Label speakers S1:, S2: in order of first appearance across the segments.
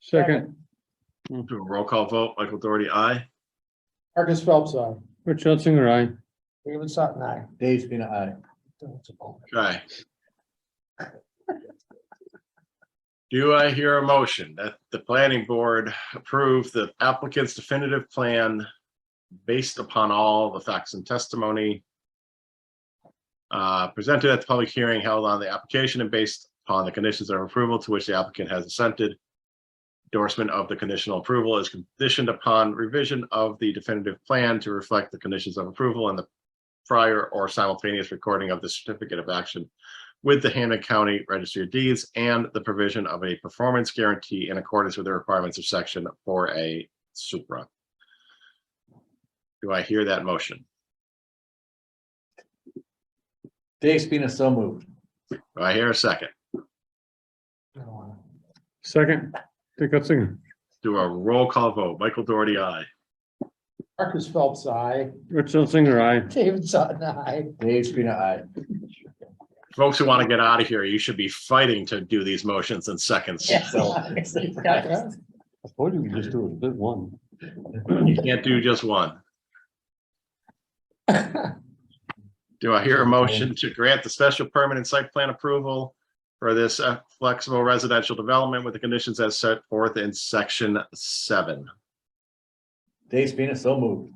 S1: Second,
S2: Move to a roll call vote. Michael Doherty, aye.
S3: Marcus Phelps, aye.
S1: Rich Hunsinger, aye.
S3: David Sutton, aye.
S4: Dave's been aye.
S2: Okay. Do I hear a motion that the planning board approve the applicant's definitive plan based upon all the facts and testimony uh, presented at the public hearing held on the application and based upon the conditions of approval to which the applicant has assented? Endorsement of the conditional approval is conditioned upon revision of the definitive plan to reflect the conditions of approval and the prior or simultaneous recording of the certificate of action with the Hannah County Registry of Deeds and the provision of a performance guarantee in accordance with the requirements of section four A Supra. Do I hear that motion?
S4: Dave's been so moved.
S2: Do I hear a second?
S1: Second, Dick Hunsinger,
S2: Do a roll call vote. Michael Doherty, aye.
S3: Marcus Phelps, aye.
S1: Rich Hunsinger, aye.
S3: David Sutton, aye.
S4: Dave's been aye.
S2: Folks who want to get out of here, you should be fighting to do these motions in seconds.
S3: Yeah.
S1: I told you we just do it, did one.
S2: You can't do just one. Do I hear a motion to grant the special permit and site plan approval for this uh, flexible residential development with the conditions as set forth in section seven?
S4: Dave's been so moved.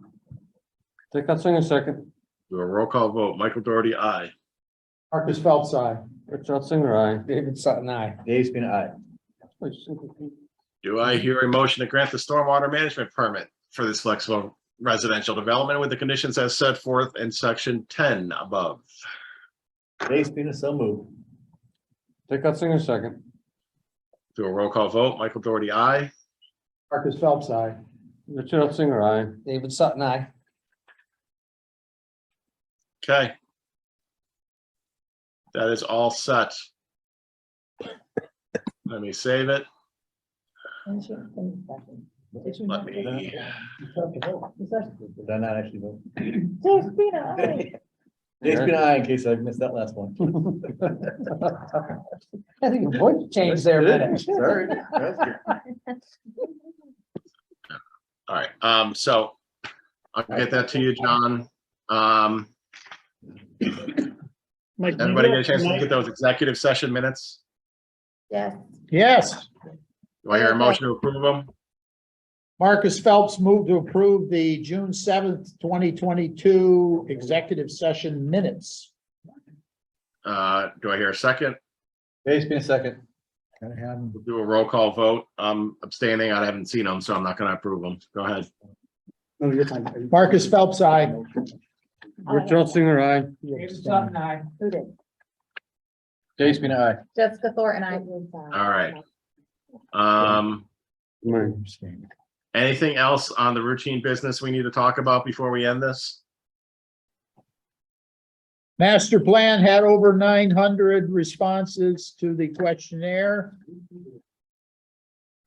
S1: Dick Hunsinger, second.
S2: Do a roll call vote. Michael Doherty, aye.
S3: Marcus Phelps, aye.
S1: Rich Hunsinger, aye.
S3: David Sutton, aye.
S4: Dave's been aye.
S2: Do I hear a motion to grant the stormwater management permit for this flexible residential development with the conditions as set forth in section ten above?
S4: Dave's been so moved.
S1: Dick Hunsinger, second.
S2: Do a roll call vote. Michael Doherty, aye.
S3: Marcus Phelps, aye.
S1: Rich Hunsinger, aye.
S3: David Sutton, aye.
S2: Okay. That is all set. Let me save it. Let me,
S4: Did I not actually vote?
S5: Despina,
S4: Dave's been aye in case I missed that last one.
S3: I think your voice changed there a minute.
S4: Sorry. That's good.
S2: all right, um, so I'll get that to you, John. Um,
S6: Mike,
S2: everybody get
S6: maybe
S2: a chance to look at those executive session minutes?
S5: yes,
S3: Yes,
S2: Do I hear a motion to approve them?
S3: Marcus Phelps moved to approve the June seventh, twenty twenty-two executive session minutes.
S2: Uh, do I hear a second?
S4: Dave's been second.
S3: Gotta have them.
S2: We'll Do a roll call vote. I'm abstaining. I haven't seen them, so I'm not gonna approve them. Go ahead.
S3: Marcus Phelps, aye.
S1: Rich Hunsinger, aye.
S3: David Sutton, aye.
S5: who did?
S4: Dave's been aye.
S5: Jessica Thornton, I.
S2: All right. Um,
S1: Mike,
S2: anything else on the routine business we need to talk about before we end this?
S3: Master plan had over nine hundred responses to the questionnaire.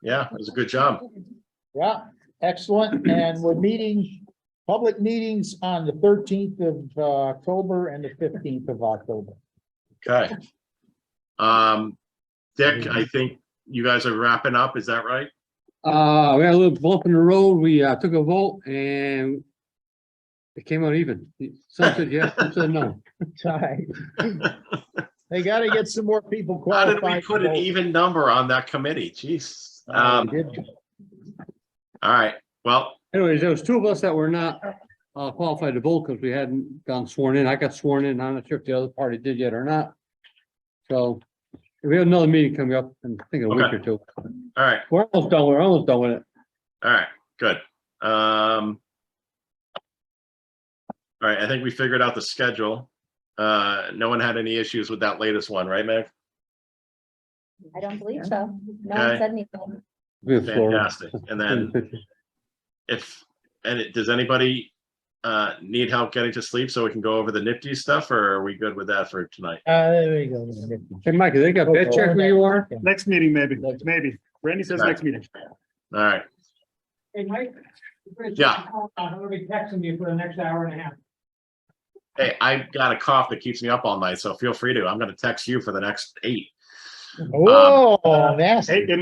S2: Yeah, it was a good job.
S3: Yeah, excellent. And we're meeting, public meetings on the thirteenth of uh, October and the fifteenth of October.
S2: Okay. Um, Dick, I think you guys are wrapping up. Is that right?
S1: Uh, we had a little bump in the road. We, uh, took a vote and it came out even. Some said yes, some said no.
S3: Ty. They gotta get some more people
S2: How did
S3: qualified.
S2: we put
S3: to
S2: an
S3: vote.
S2: even number on that committee? Jeez. Um, all right. Well,
S1: Anyways, there was two of us that were not uh, qualified to vote because we hadn't gotten sworn in. I got sworn in. I'm not sure if the other party did yet or not. So we have another meeting coming up in, I think, a week
S2: Okay.
S1: or two.
S2: all right,
S1: We're almost done. We're almost done with it.
S2: all right, good. Um, all right, I think we figured out the schedule. Uh, no one had any issues with that latest one, right, Meg?
S5: I don't believe so. No
S2: Okay.
S5: one said anything.
S1: We have Florida.
S2: Fantastic. And then if, and it- does anybody uh, need help getting to sleep so we can go over the nifty stuff or are we good with that for tonight?
S3: Uh, there we go.
S1: Hey, Mike, they got bed check where you are?
S6: Next meeting, maybe, maybe. Randy says next meeting.
S2: All right,
S7: Hey, Mike.
S2: Yeah.
S7: I'm gonna be texting you for the next hour and a half.
S2: hey, I got a cough that keeps me up all night, so feel free to, I'm gonna text you for the next eight.
S3: Oh, nasty.
S6: Hey, it